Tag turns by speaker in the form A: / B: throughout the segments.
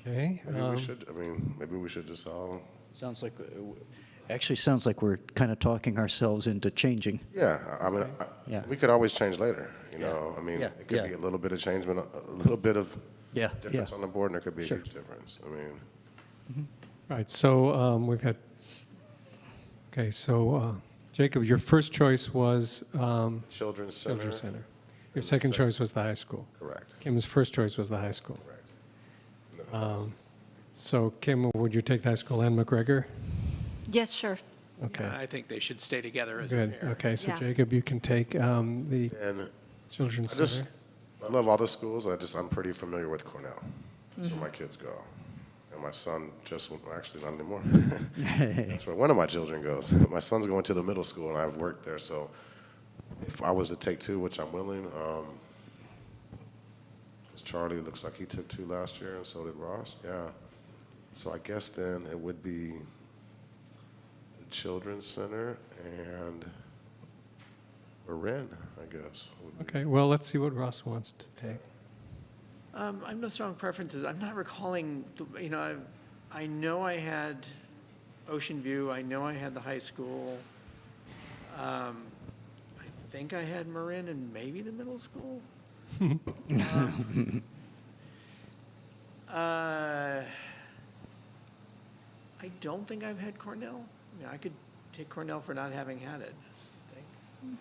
A: Okay.
B: Maybe
A: um,
B: we should, I mean, maybe we should just all,
C: Sounds like, uh, actually sounds like we're kind of talking ourselves into changing.
B: yeah, I- I mean, I-
C: Yeah.
B: we could always change later, you know? I mean,
C: Yeah,
B: it could
C: yeah.
B: be a little bit of change, but a a little bit of
C: Yeah, yeah.
B: difference on the board, and there could be a
C: Sure.
B: huge difference. I mean,
A: Right, so um, we've had, okay, so uh, Jacob, your first choice was um,
B: Children's Center.
A: Children's Center. Your second
B: Center.
A: choice was the high school.
B: Correct,
A: Kim's first choice was the high school. Um,
B: correct.
A: So Kim, would you take the high school and McGregor?
D: Yes, sure.
A: Okay,
E: I think they should stay together as a
A: good.
E: pair.
A: Okay, so
D: Yeah.
A: Jacob, you can take um, the
B: And
A: Children's
B: I just,
A: Center.
B: I love all the schools. I just, I'm pretty familiar with Cornell. That's where my kids go. And my son just, went- well, actually not anymore. That's where one of my children goes. My son's going to the middle school and I've worked there, so if I was to take two, which I'm willing, um, 'cause Charlie looks like he took two last year and so did Ross, yeah. So I guess then it would be the Children's Center and Marin, I guess. would be-
A: Okay, well, let's see what Ross wants to take.
E: Um, I have no strong preferences. I'm not recalling, the- you know, I, I know I had Ocean View, I know I had the high school. Um, I think I had Marin and maybe the middle school. Um, uh, I don't think I've had Cornell. I mean, I could take Cornell for not having had it, I think.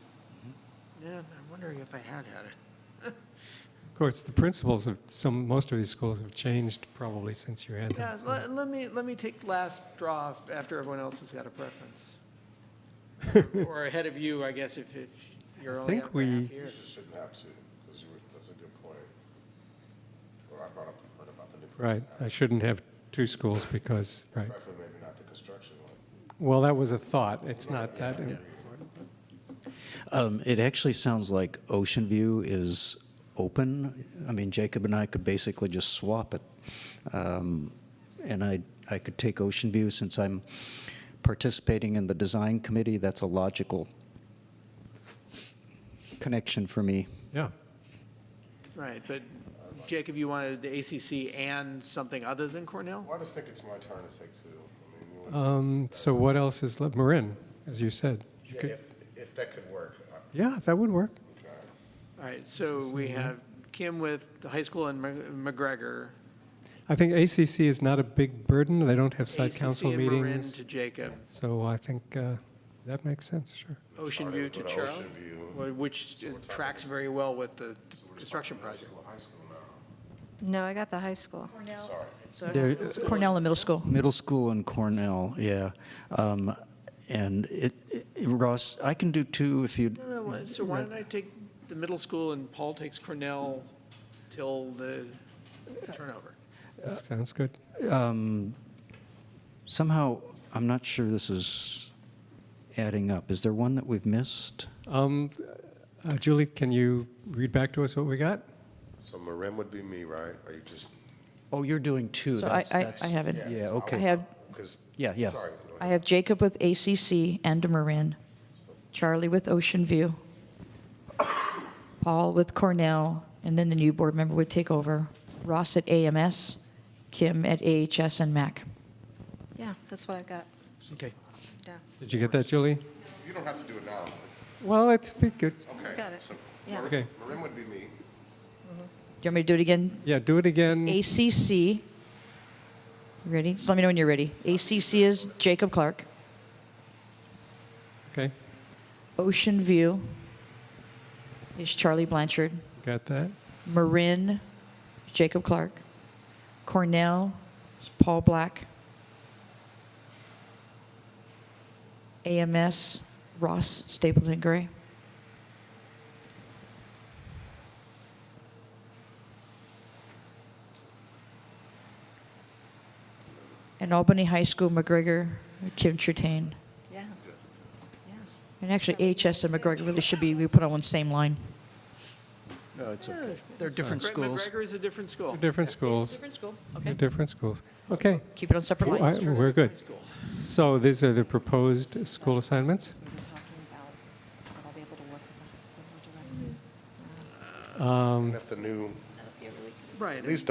E: Yeah, I'm wondering if I had had it.
A: Of course, the principals of some, most of these schools have changed probably since you had them.
E: Yeah, let, let me, let me take last draw f- after everyone else has got a preference. Or- Or ahead of you, I guess, if, if you're
A: I
E: only
A: think
E: up by half
A: we-
E: here.
B: You shouldn't have to, because you were, that's a good point. Or I brought up the point about the new.
A: Right, I shouldn't have two schools because, right.
B: Preferably maybe not the construction one.
A: Well, that was a thought. It's not that.
C: Um, it actually sounds like Ocean View is open. I mean, Jacob and I could basically just swap it. Um, and I, I could take Ocean View since I'm participating in the design committee. That's a logical connection for me.
A: Yeah.
E: Right, but Jacob, you wanted the ACC and something other than Cornell?
B: Well, I just think it's my turn to take two. I mean, you want-
A: Um, so what else is left? Marin, as you said. You
B: Yeah,
A: could-
B: if, if that could work, I-
A: yeah, that would work.
B: okay.
E: All right, so we have Kim with the high school and Mc- McGregor.
A: I think ACC is not a big burden. They don't have site council
E: ACC and Marin
A: meetings.
E: to Jacob,
A: So I think uh, that makes sense, sure.
E: Ocean
B: Charlie
E: View
B: would
E: to
B: go
E: Charles,
B: Ocean View.
E: well, which
B: So we're talking-
E: tracks very well with the construction
B: High
E: project.
B: school, high school now.
F: No, I got the high school.
B: Sorry.
C: There-
G: Cornell and middle school.
C: Middle school and Cornell, yeah. Um, and it, it- Ross, I can do two if you.
E: No, no, why- so why don't I take the middle school and Paul takes Cornell till the turnover?
A: That sounds good.
C: Um, Somehow, I'm not sure this is adding up. Is there one that we've missed?
A: Um, uh, Julie, can you read back to us what we got?
B: So Marin would be me, right? Are you just?
C: Oh, you're doing two.
G: So I-
C: That's-
G: I-
C: that's-
G: I haven't.
C: Yeah,
G: I
C: okay.
G: have,
B: Because.
C: Yeah, yeah.
B: Sorry. go
G: I
B: ahead.
G: have Jacob with ACC and Marin, Charlie with Ocean View, Paul with Cornell, and then the new board member would take over, Ross at AMS, Kim at AHS and MAC.
F: Yeah, that's what I've got.
C: Okay.
F: Yeah,
A: Did you get that, Julie?
B: You don't have to do it now. if-
A: Well, it's be good.
B: Okay.
F: Got it.
B: So
F: Yeah.
A: Okay.
B: Marin would be me.
G: Do you want me to do it again?
A: Yeah, do it again.
G: ACC, you ready? Just let me know when you're ready. ACC is Jacob Clark,
A: Okay,
G: Ocean View is Charlie Blanchard,
A: got that?
G: Marin, Jacob Clark. Cornell, it's Paul Black. AMS, Ross Stapleton Gray. And Albany High School, McGregor, Kim Trutane.
F: yeah, yeah.
G: And actually, AHS and McGregor really should be, we put on one same line.
C: They're different
E: Greg
C: schools.
E: McGregor is a different school.
A: Different schools,
G: school,
A: They're different schools. Okay.
G: Keep it on separate
A: Well,
G: lines.
A: I- We're good. So these are the proposed school assignments.
F: We were talking about that I'll be able to work with the high school more directly. Um,
B: And if the new,
F: That'll be a really good
E: Right.
B: at least